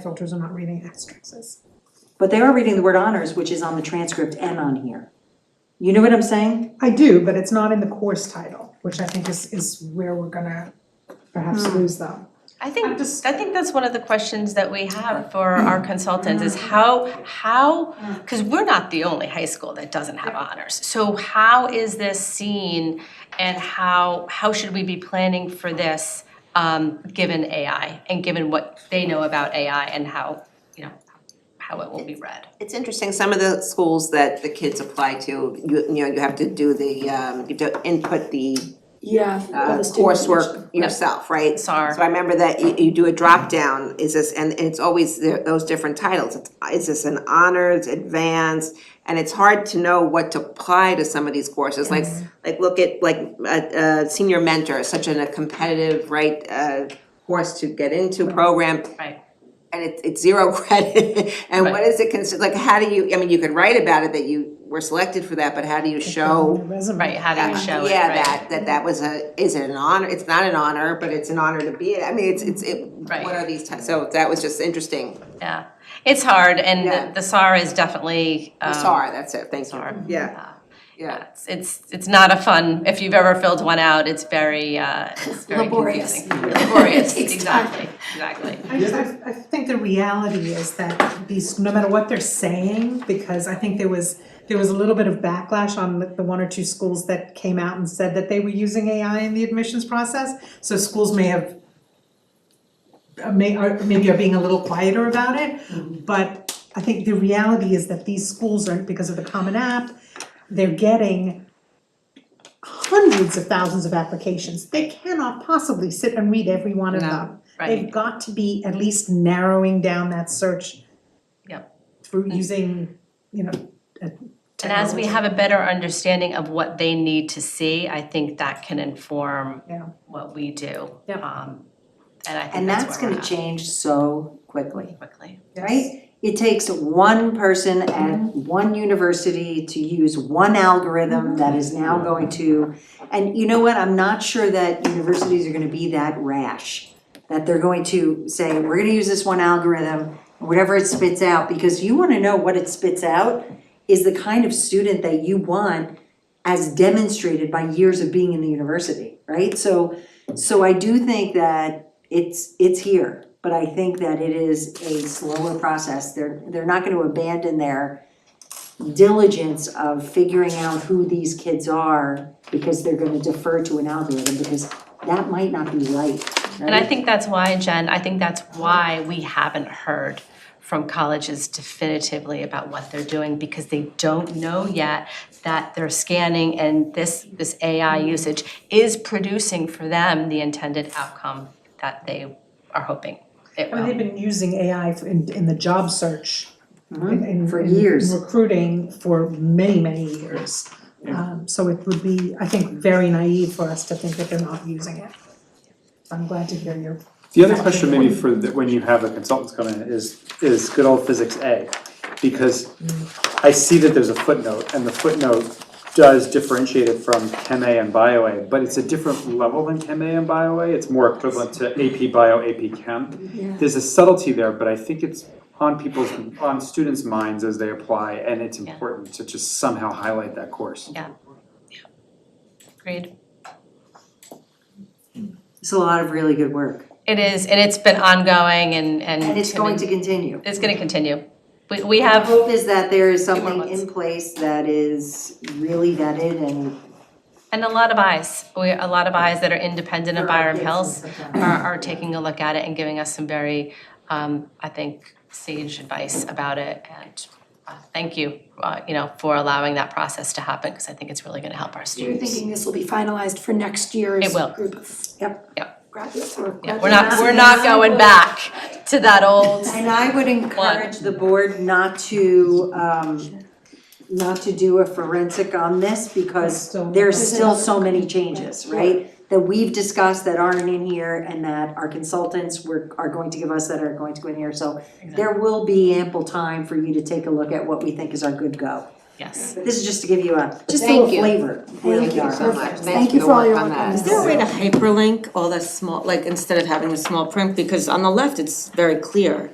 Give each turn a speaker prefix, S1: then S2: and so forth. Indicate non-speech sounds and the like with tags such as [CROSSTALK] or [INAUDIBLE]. S1: filters, I'm not reading asterisks.
S2: But they are reading the word honors, which is on the transcript and on here. You know what I'm saying?
S1: I do, but it's not in the course title, which I think is, is where we're gonna perhaps lose them.
S3: I think, I think that's one of the questions that we have for
S4: Mm.
S3: our consultants is how, how, because we're not the only high school that doesn't have honors. So how is this seen and how, how should we be planning for this, um, given AI? And given what they know about AI and how, you know, how it will be read?
S4: It's interesting, some of the schools that the kids apply to, you you know, you have to do the um, you have to input the
S5: Yeah.
S4: uh coursework yourself, right?
S3: SAR.
S4: So I remember that you you do a drop down. is this, and and it's always the- those different titles, It's- is this an honors, advanced? And it's hard to know what to apply to some of these courses, like like look at like a a senior mentor, such an a competitive, right, uh course to get into program
S3: Right.
S4: and it's it's zero [LAUGHS] credit, and what
S3: Right.
S4: is it considered, like, how do you, I mean, you could write about it that you were selected for that, but how do you show?
S1: Resume.
S3: Right, how do you show it,
S4: Yeah,
S3: right?
S4: that that that was a, is it an honor, it's not an honor, but it's an honor to be it, I mean, it's it's it,
S3: Right.
S4: what are these types, so that was just interesting,
S3: Yeah, it's hard and
S4: Yeah.
S3: the- the SAR is definitely, um,
S4: I'm sorry, that's it, thanks, Norm. yeah,
S3: uh,
S4: yeah.
S3: It's- It's, it's not a fun, if you've ever filled one out, it's very, uh, it's very
S5: Laborious.
S3: confusing. Laborious,
S5: It takes time.
S3: exactly, exactly.
S1: I, I, I think the reality is that these, no matter what they're saying, because I think there was, there was a little bit of backlash on the, the one or two schools that came out and said that they were using AI in the admissions process, so schools may have uh, may, are, maybe are being a little quieter about it, but I think the reality is that these schools are, because of the Common App, they're getting hundreds of thousands of applications, they cannot possibly sit and read every one of
S4: No.
S1: them. They've
S3: Right,
S1: got to be at least narrowing down that search.
S3: Yep.
S1: Through using, you know, a
S3: and as we
S1: technology.
S3: have a better understanding of what they need to see, I think that can inform
S1: Yeah.
S3: what we do.
S1: Yep.
S3: Um, And I think
S2: And that's
S3: that's where we're
S2: gonna
S3: at
S2: change so quickly,
S3: quickly.
S2: right? It takes one person at
S3: Mm-hmm.
S2: one university to use one algorithm that is now going to, and you know what, I'm not sure that universities are gonna be that rash. That they're going to say, we're gonna use this one algorithm, whatever it spits out, because you wanna know what it spits out is the kind of student that you want as demonstrated by years of being in the university, right? So, so I do think that it's, it's here, but I think that it is a slower process. They're, they're not gonna abandon their diligence of figuring out who these kids are because they're gonna defer to an algorithm, because that might not be right,
S3: And I
S2: right?
S3: think that's why, Jen, I think that's why we haven't heard from colleges definitively about what they're doing because they don't know yet that their scanning and this, this AI usage is producing for them the intended outcome that they are hoping it
S1: I mean, they've
S3: will.
S1: been using AI for- in, in the job search. in- in-
S2: Uh-huh. for
S1: in
S2: years.
S1: Recruiting for many, many years. Um, so it would be, I think, very naive for us to think that they're not using it. I'm glad to hear your,
S6: The other question maybe for, the- when you have the consultants come in is, is good old physics A. Because I see that there's a footnote, and the footnote does differentiate it from Chem A and Bio A, but it's a different level than Chem A and Bio A, it's more equivalent to AP Bio, AP Chem. There's a subtlety there, but I think it's on people's, on students' minds as they apply, and it's
S3: Yeah.
S6: important to just somehow highlight that course.
S3: Agreed.
S2: It's a lot of really good work,
S3: It is, and it's been ongoing and, and.
S2: and it's going to continue.
S3: It's gonna continue. We, we have.
S2: hope is that there is
S3: Few more
S2: something
S3: months.
S2: in place that is really vetted and.
S3: And a lot of eyes, we, a lot of eyes that are independent of Byram Hills are, are taking a look at it and giving us some very, um, I think, sage advice about it. And uh, thank you, uh, you know, for allowing that process to happen, because I think it's really gonna help our
S5: You're
S3: students.
S5: thinking this will be finalized for next year's
S3: It will.
S5: group of
S2: Yep.
S3: Yep.
S5: graduates or
S3: Yeah, we're not, we're not going back to that
S5: [LAUGHS]
S3: old,
S2: And I would encourage the board not to, um, not to do a forensic on this because
S1: Still-
S2: there's still so many changes, right? That we've discussed that aren't in here and that our consultants were, are going to give us that are going to go in here. So there will be ample time for you to take a look at what we think is our good go.
S3: yes.
S2: This is just to give you a, just a
S4: Thank
S2: little
S4: you.
S2: flavor of where we
S5: Thank you
S2: are.
S5: so
S4: So much,
S5: Perfect.
S4: thanks
S5: Thank
S4: for
S5: you
S4: the
S5: for all
S4: work
S5: your
S4: on
S5: work
S4: that.
S5: on
S7: Is there a way to hyperlink all the small, like instead of having the small print, because on the left, it's very clear.